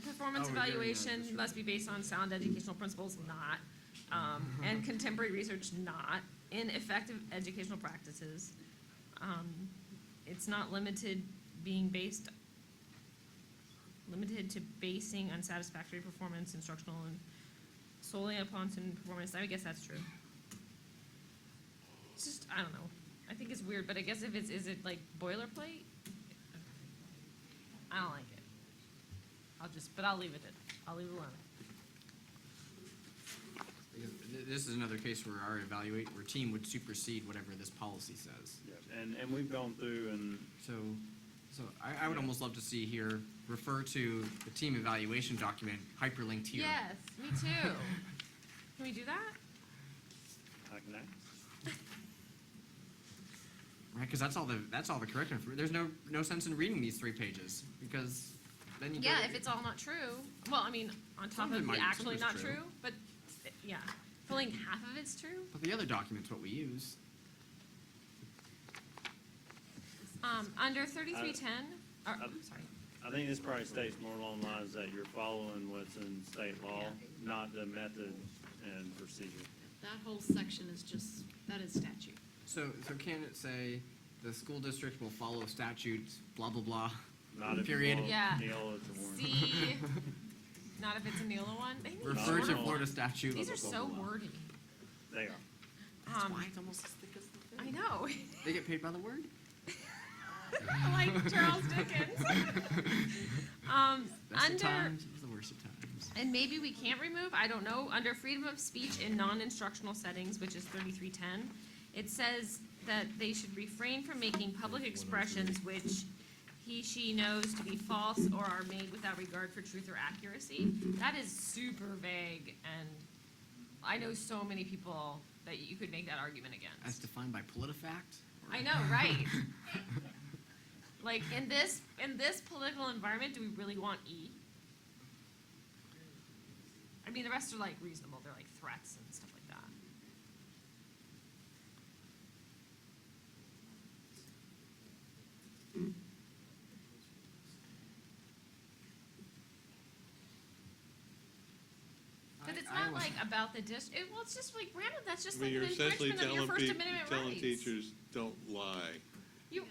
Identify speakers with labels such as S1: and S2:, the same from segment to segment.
S1: performance
S2: Oh, yeah, yeah,
S1: evaluation
S2: that's
S1: must be based on sound educational principles, not, um, and contemporary research, not, in effective educational practices. Um, it's not limited being based, limited to basing unsatisfactory performance instructional and solely upon student performance, I guess that's true. It's just, I don't know, I think it's weird, but I guess if it's, is it like boilerplate? I don't like it. I'll just, but I'll leave it, at- I'll leave it alone.
S3: Because th- This is another case where our evaluate, where team would supersede whatever this policy says.
S2: And, and we've gone through and,
S3: So, so I, I would almost love to see here, refer to the team evaluation document hyperlinked here.
S1: Yes, me too. Can we do that?
S2: I can act.
S3: Right, because that's all the, that's all the correct information. There's no, no sense in reading these three pages, because then you go.
S1: Yeah, if it's all not true, well, I mean, on top
S3: Some of it
S1: of the
S3: might- some
S1: actually
S3: is
S1: not
S3: true.
S1: true, but, it- yeah, filling half of it's true.
S3: But the other document's what we use.
S1: Um, under thirty-three ten, or,
S3: Uh,
S2: I-
S1: I'm sorry,
S2: I think this probably states more along the lines that you're following what's in state law, not the method and procedure.
S4: That whole section is just, that is statute.
S3: So, so can it say, the school district will follow statutes, blah, blah, blah?
S2: Not if you
S3: Period.
S2: follow
S1: Yeah.
S2: Neola to Warren.
S1: C, not if it's a Neola one, they need
S3: Refer to
S1: shorter ones.
S3: Florida statute.
S1: These are
S3: blah, blah,
S1: so
S3: blah, blah.
S1: wordy.
S2: They are.
S3: That's
S1: Um,
S3: why it's almost as thick as the thing.
S1: I know,
S3: They get paid by the word?
S1: like Charles Dickens. Um,
S3: Best
S1: under.
S3: of times, it's the worst of times.
S1: And maybe we can't remove, I don't know, under freedom of speech in non-instructional settings, which is thirty-three ten, it says that they should refrain from making public expressions which he, she knows to be false or are made without regard for truth or accuracy. That is super vague, and I know so many people that you could make that argument
S3: As
S1: against.
S3: defined by PolitiFact? or-
S1: I know, right? Like, in this, in this political environment, do we really want E? I mean, the rest are like reasonable, they're like threats and stuff like that. But
S3: I-
S1: it's
S3: I
S1: not
S3: was-
S1: like about the dis, it, well, it's just like random, that's just
S5: I mean,
S1: like an
S5: you're essentially
S1: infringement of your
S5: telling
S1: First
S5: people,
S1: Amendment rights.
S5: telling teachers, don't lie.
S1: You,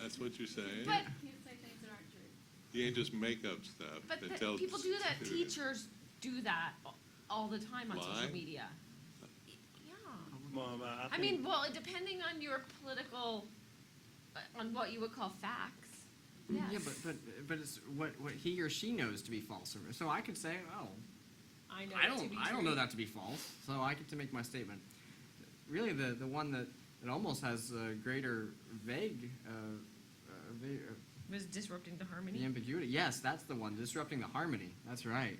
S5: That's what you're saying.
S1: but
S4: Can't say things that aren't true.
S5: You ain't just make up stuff
S1: But
S5: and
S1: the-
S5: tell.
S1: people do that.
S5: students.
S1: Teachers do that a- all the time on
S5: Lie?
S1: social media.
S5: Uh,
S1: Yeah.
S2: Well, but I
S1: I
S2: think-
S1: mean, well, depending on your political, uh, on what you would call facts. Yes.
S3: Yeah, but, but, but it's what, what he or she knows to be false. or- So I could say, oh,
S1: I know.
S3: I
S1: that to
S3: don't,
S1: be
S3: I don't
S1: true.
S3: know that to be false, so I get to make my statement. Really, the, the one that, that almost has a greater vague, uh, uh, va- uh,
S1: Was disrupting the
S3: the
S1: harmony.
S3: ambiguity, yes, that's the one, disrupting the harmony, that's right.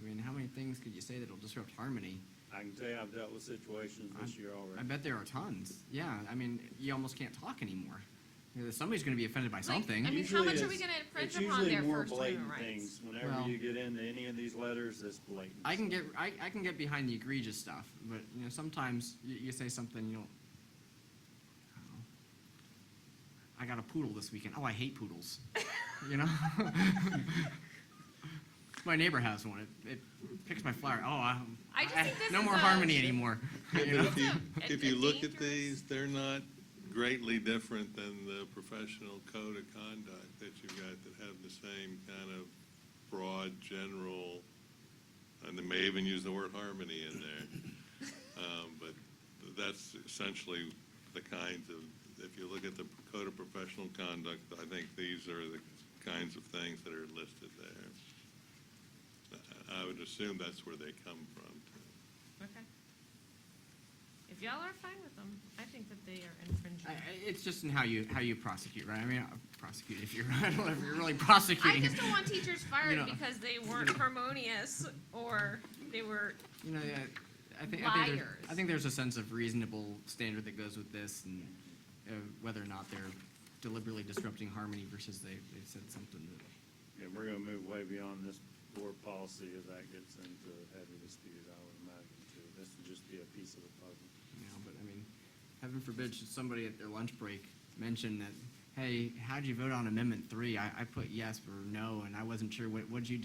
S3: I mean, how many things could you say that'll disrupt harmony?
S2: I can tell you I've dealt with situations this year
S3: I
S2: already.
S3: bet there are tons, yeah, I mean, you almost can't talk anymore. You know, Somebody's gonna be offended by something.
S1: I mean, how
S2: Usually
S1: much are we
S2: it's-
S1: gonna infringe
S2: it's
S1: upon
S2: usually
S1: their
S2: more
S1: First Amendment
S2: blatant
S1: rights?
S2: things. Whenever
S3: Well-
S2: you get into any of these letters, it's blatant.
S3: I can get I, I can get behind the egregious stuff, but you know sometimes you, you say something you don't. I don't know. I got a poodle this weekend. Oh, I hate poodles. you know. my neighbor has one. It, it picks my flower. Oh, I,
S1: I just think this
S3: no
S1: is
S3: more
S1: a-
S3: harmony anymore.
S5: Yeah,
S3: you
S5: but
S3: know?
S5: if you,
S1: It's
S5: if
S1: a
S5: you look at
S1: dangerous-
S5: these, they're not greatly different than the professional code of conduct that you've got that have the same kind of broad, general, and they may even use the word harmony in there. Um, But that's essentially the kinds of, if you look at the code of professional conduct, I think these are the kinds of things that are listed there. I- I would assume that's where they come from. too.
S1: Okay. If y'all are fine with them, I think that they are infringing.
S3: I, I- it's just in how you how you prosecute, right? I mean, uh, prosecute if you're I don't know if you're really prosecuting.
S1: I just don't want teachers fired
S3: know.
S1: because they weren't harmonious or they were
S3: You know, yeah, I think, I think, there- I
S1: Liars.
S3: think there's a sense of reasonable standard that goes with this and uh, whether or not they're deliberately disrupting harmony versus they, they said something that,
S2: And we're gonna move way beyond this board policy as that gets into heavy dispute, I would imagine too. This would just be a piece of the puzzle.
S3: you know, but I mean, heaven forbid should somebody at their lunch break mention that, hey, how'd you vote on amendment three? I, I put yes or no and I wasn't sure, what, what'd you do?